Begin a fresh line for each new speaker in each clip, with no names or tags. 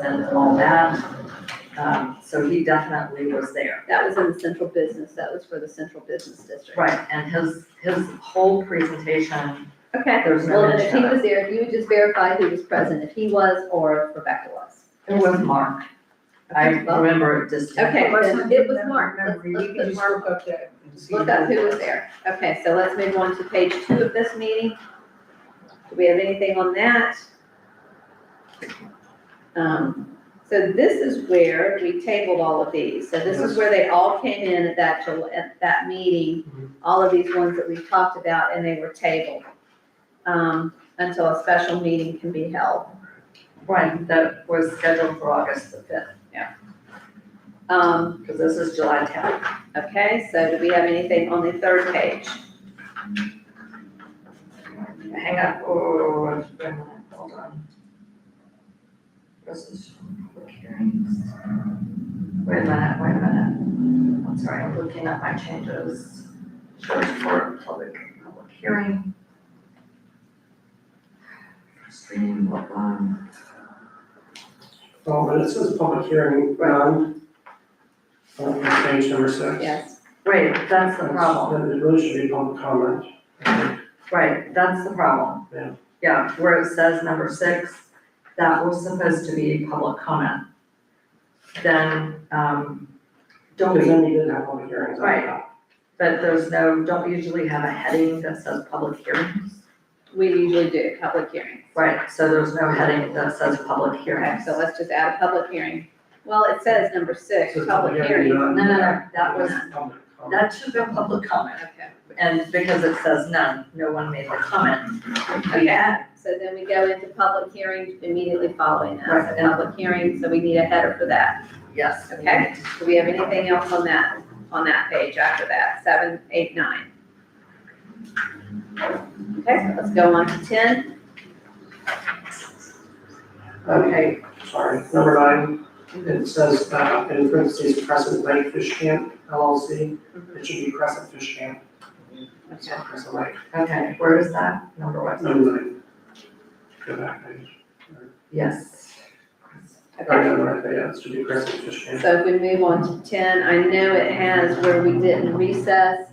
and all that. Um, so he definitely was there.
That was in the central business, that was for the central business district.
Right, and his, his whole presentation,
Okay,
There was no
well, then if he
mention of it.
was there, if you would just verify who was present, if he was or if Rebecca was.
it was Mark. I
Okay, well-
remember it distinctly.
Okay, then
Wasn't
it was Mark, let's,
Memory,
let's
you can
put
just
Mark,
look up that. and see
look up who was
it
there. Okay, so let's move on to page two of this meeting. Do we have anything on that? Um, so this is where we tabled all of these, so this is
Yes.
where they all came in at that, Jul- at that
Mhm.
meeting, all of these ones that we've talked about, and they were tabled, um, until a special meeting can be held.
Right, that was scheduled for August the fifth,
Um,
because this is July tenth.
okay, so do we have anything on the third page?
Hang on, oh, wait a minute, hold on. This is public hearings. Wait a minute, wait a minute. I'm sorry, I'm looking at my changes. Search for public, public hearing. First reading, blah, blah.
Oh, but it says public hearing, um, on page number six.
Yes,
Right, that's the
That's-
problem.
That it really should be public comment.
Right, that's the problem.
Yeah.
Yeah, where it says number six, that was supposed to be public comment. Then, um, don't
Because
we,
then you didn't have public hearings.
Right. but there's no, don't we usually have a heading that says public hearings?
we usually do, public hearing.
Right, so there's no heading that says public
Okay,
hearings.
so let's just add a public hearing. Well, it says number six,
Says
public
public
hearing.
hearing,
No, no, no,
that was,
Public comment.
that should have been public comment.
okay.
And because it says none, no one made the comment.
Okay, Oh, so then we go into public hearing immediately following that,
Right, and-
so public hearing, so we need a header for that.
Yes.
Okay, do we have anything else on that, on that page after that, seven, eight, nine? Okay, let's go on to ten.
Okay, sorry, number nine, it says, uh, in parentheses, Crescent Lake Fish Camp LLC. It should be Crescent Fish Camp, it's
Okay.
not Crescent Lake,
Okay, where is that? Number one?
number nine. Go back page.
Yes.
Or,
Okay.
no, right, there, yeah, it should be Crescent Fish Camp.
So if we move on to ten, I know it has where we didn't recess.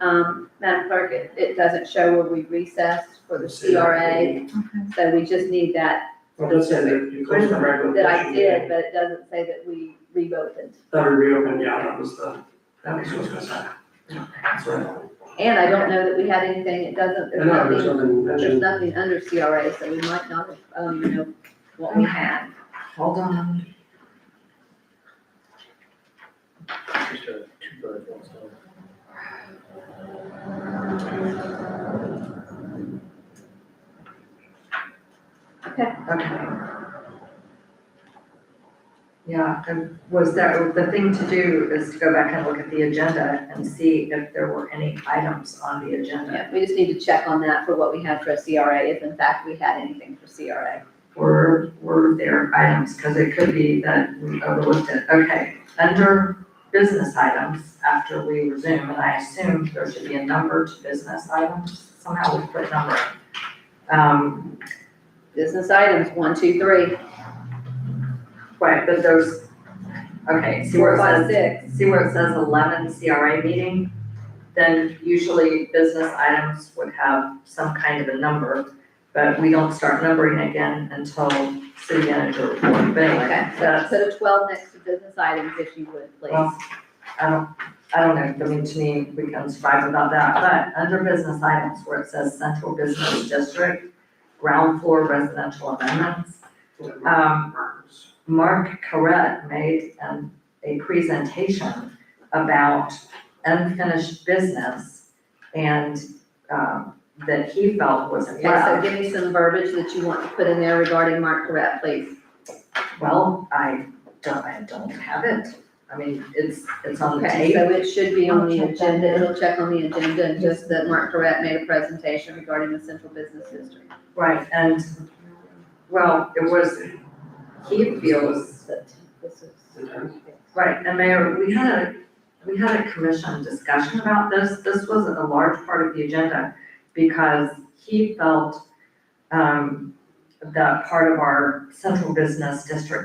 Um, Madam Clerk, it, it doesn't show where we recessed for the CRA, so we just need that,
Well, that's it, you closed the regular.
that I
session
did,
meeting.
but it doesn't say that we reopened.
That we reopened, yeah, that was the, that was what's gonna happen. That's right.
And I don't know that we had anything, it doesn't,
I
there's
know, there's
nothing,
nothing
there's
mentioned.
nothing under CRA, so we might not, have, um, you know, what we had.
Hold on.
Just a two-thirds one, so.
Okay. Yeah, and was that, the thing to do is to go back and look at the agenda and see if there were any items on the agenda.
Yeah, we just need to check on that for what we had for a CRA, if in fact we had anything for CRA.
Were, were there items, because it could be that we overlooked it. Okay, under business items, after we resume, and I assume there should be a number to business items, somehow we put number. Um,
Business items, one, two, three,
right, but there's, okay, see where
four,
it says
five, six.
see where it says eleven CRA meeting, then usually business items would have some kind of a number, but we don't start numbering again until city manager report, but anyway,
Okay, so
that's,
put a twelve next to business items if you would, please.
well, I don't, I don't know, I mean, to me, we can strive about that, but under business items where it says central business district, ground floor residential amendments, um, Mark Corret made um, a presentation about unfinished business and um, that he felt was
Okay, so
left.
give me some verbiage that you want to put in there regarding Mark Correct, please.
Well, I don't, I don't have it. I mean, it's, it's on the
Okay,
tape.
so it should be on the
I'll check that
agenda, it'll check on the agenda, and just that Mark Correct made a presentation regarding the central business district.
Right, and, well, it was, he feels that,
This is-
right, and Mayor, we had a, we had a commission discussion about this. This was a large part of the agenda because he felt um, that part of our central business district